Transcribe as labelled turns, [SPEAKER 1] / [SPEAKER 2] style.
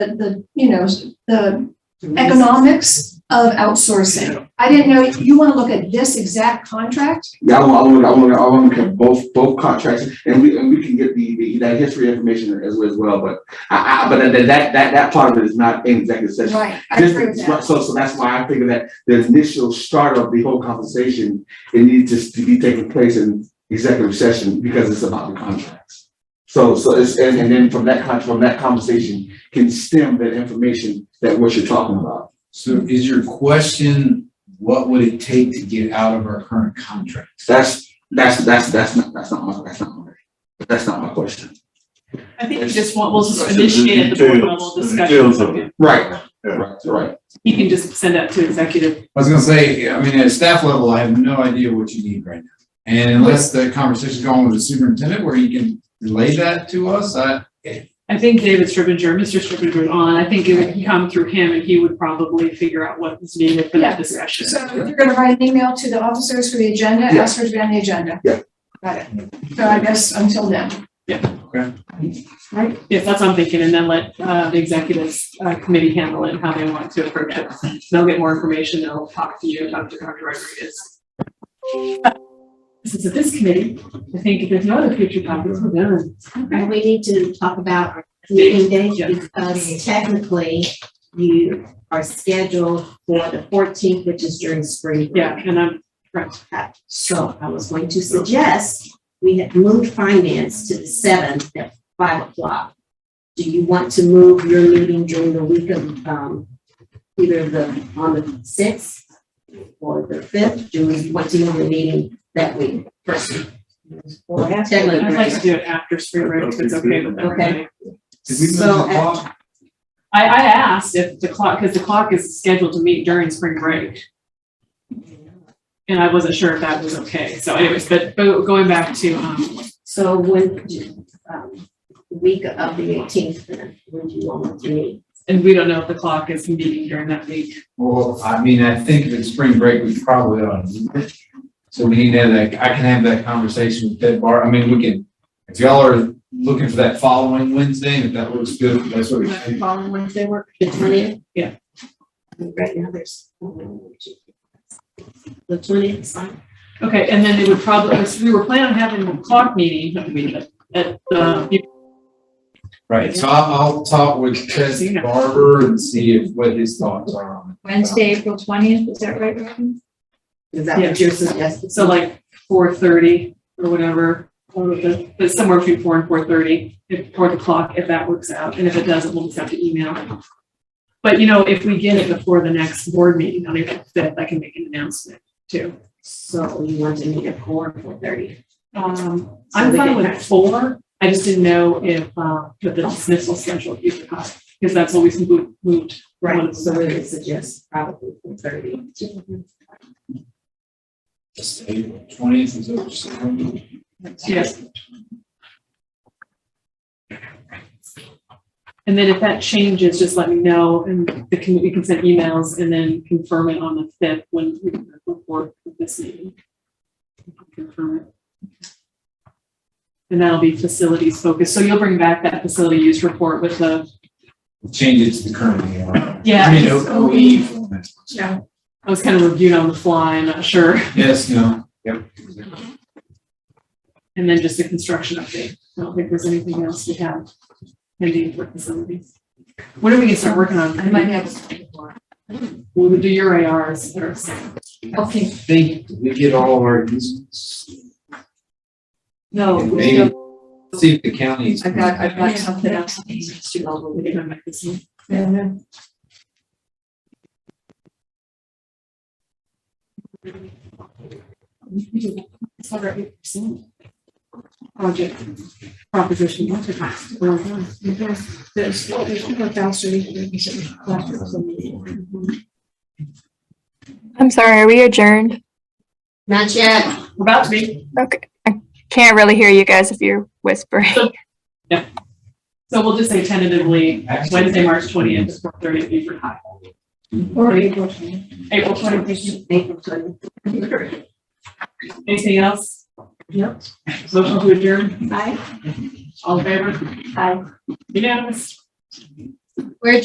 [SPEAKER 1] the, you know, the economics of outsourcing. I didn't know, you want to look at this exact contract?
[SPEAKER 2] Yeah, I want, I want, I want to get both, both contracts, and we, and we can get the, the, that history information as, as well, but I, I, but that, that, that, that part of it is not in executive session.
[SPEAKER 1] Right, I agree with that.
[SPEAKER 2] So, so that's why I figure that the initial start of the whole conversation, it needs to- to be taking place in executive session because it's about the contracts. So, so it's, and, and then from that, con- from that conversation can stem that information that what you're talking about.
[SPEAKER 3] So is your question, what would it take to get out of our current contracts?
[SPEAKER 2] That's, that's, that's, that's not, that's not my, that's not my, that's not my question.
[SPEAKER 4] I think we just want, we'll just
[SPEAKER 5] It's the
[SPEAKER 4] initiate at the board level
[SPEAKER 5] details, the details of
[SPEAKER 4] discussion.
[SPEAKER 5] it.
[SPEAKER 2] Right.
[SPEAKER 5] Yeah.
[SPEAKER 2] Right, right.
[SPEAKER 4] He can just send that to executive.
[SPEAKER 3] I was gonna say, I mean, at staff level, I have no idea what you need right now. And unless the conversation's going with the superintendent where you can relay that to us, I,
[SPEAKER 4] I think David Stripinger, Mr. Stripinger is on. I think it would come through him and he would probably figure out what is needed for
[SPEAKER 1] Yeah.
[SPEAKER 4] that discussion.
[SPEAKER 1] So if you're gonna write an email to the officers for the agenda,
[SPEAKER 2] Yeah.
[SPEAKER 1] ask for it to be on the agenda.
[SPEAKER 2] Yeah.
[SPEAKER 1] Got it. So I guess until then.
[SPEAKER 4] Yes, that's what I'm thinking. And then let uh, the executives uh, committee handle it and how they want to approach it. They'll get more information. They'll talk to you, talk to Dr. Rodriguez. Since it's this committee, I think if there's no other future topics, we're done.
[SPEAKER 6] And we need to talk about our meeting dates because technically you are scheduled for the fourteenth, which is during spring. break.
[SPEAKER 4] Yeah, and I'm,
[SPEAKER 6] So I was going to suggest, we had moved finance to the seventh at five o'clock. Do you want to move your meeting during the week of, um, either the, on the sixth or the fifth? Do we, what do you want the meeting that week first? Technically,
[SPEAKER 4] I'd like to do it after spring break if it's okay with everybody.
[SPEAKER 3] did we move the
[SPEAKER 6] So, uh,
[SPEAKER 3] clock?
[SPEAKER 4] I, I asked if the clock, because the clock is scheduled to meet during spring break, and I wasn't sure if that was okay. So anyways, but, but going back to, um,
[SPEAKER 6] So when, um, week of the eighteenth, then, when do you want to meet?
[SPEAKER 4] and we don't know if the clock is meeting during that week.
[SPEAKER 3] Well, I mean, I think if it's spring break, we probably ought to. move it. So we need to have that, I can have that conversation with Ted Bar, I mean, we can, if y'all are looking for that following Wednesday, if that looks good, that's what we should.
[SPEAKER 6] Following Wednesday work, the twentieth?
[SPEAKER 4] Yeah.
[SPEAKER 6] Right now, there's. The twentieth is fine.
[SPEAKER 4] Okay, and then it would probably, we were planning on having a clock meeting, not meeting, but at, uh,
[SPEAKER 3] Right, so I'll, I'll talk with Ted
[SPEAKER 4] Yeah.
[SPEAKER 3] Barber and see if, what his thoughts are on it.
[SPEAKER 7] Wednesday, April twentieth, is that right, Robin?
[SPEAKER 6] Is that
[SPEAKER 4] Yeah.
[SPEAKER 6] what you're suggesting?
[SPEAKER 4] so like four thirty or whatever, or the, but somewhere between four and four thirty, if, or the clock, if that works out, and if it doesn't, we'll just have to email. But you know, if we get it before the next board meeting on April fifth, I can make an announcement too.
[SPEAKER 6] So you want to meet at four, four thirty?
[SPEAKER 4] Um,
[SPEAKER 6] So
[SPEAKER 4] I'm
[SPEAKER 6] we
[SPEAKER 4] fine
[SPEAKER 6] get
[SPEAKER 4] with
[SPEAKER 6] that.
[SPEAKER 4] four, I just didn't know if, uh, if the dismissal schedule, if you could, because that's always moved, moved.
[SPEAKER 6] Right, so we would suggest probably four thirty.
[SPEAKER 3] Twentieth is over soon.
[SPEAKER 4] Yes. And then if that changes, just let me know and the committee can send emails and then confirm it on the fifth when we report this meeting. Confirm it. And that'll be facilities focused. So you'll bring back that facility use report with the,
[SPEAKER 3] Change it to the current year.
[SPEAKER 4] Yeah.
[SPEAKER 3] I mean, oh, we've-
[SPEAKER 4] I was kind of reviewed on the fly, I'm not sure.
[SPEAKER 3] Yes, no, yep.
[SPEAKER 4] And then just a construction update. I don't think there's anything else we have pending for facilities. When are we gonna start working on?
[SPEAKER 7] I might have.
[SPEAKER 4] We would do your ARs first.
[SPEAKER 3] I
[SPEAKER 7] Okay,
[SPEAKER 3] think we get all of our uses.
[SPEAKER 7] no.
[SPEAKER 4] Oh,
[SPEAKER 3] And
[SPEAKER 7] we
[SPEAKER 3] maybe,
[SPEAKER 7] don't-
[SPEAKER 3] see if the county's.
[SPEAKER 7] I've got, I've got
[SPEAKER 4] Yeah.
[SPEAKER 7] something else. that needs to go over
[SPEAKER 4] We
[SPEAKER 7] with.
[SPEAKER 4] can come back this month. Project proposition. what's it called? Well done.
[SPEAKER 1] There's, there's four thousand.
[SPEAKER 8] I'm sorry, are we adjourned?
[SPEAKER 6] Not yet.
[SPEAKER 4] We're About to be.
[SPEAKER 8] Okay. I can't really hear you guys if you're whispering.
[SPEAKER 4] So we'll just say tentatively
[SPEAKER 3] Actually-
[SPEAKER 4] Wednesday, March twentieth, four thirty, Beaver High.
[SPEAKER 1] Or April twentieth.
[SPEAKER 4] April twentieth. Anything else?
[SPEAKER 6] Yep.
[SPEAKER 4] Motion to adjourn,
[SPEAKER 6] Bye.
[SPEAKER 4] all in favor?
[SPEAKER 6] Bye.
[SPEAKER 4] Unanimous.
[SPEAKER 1] Where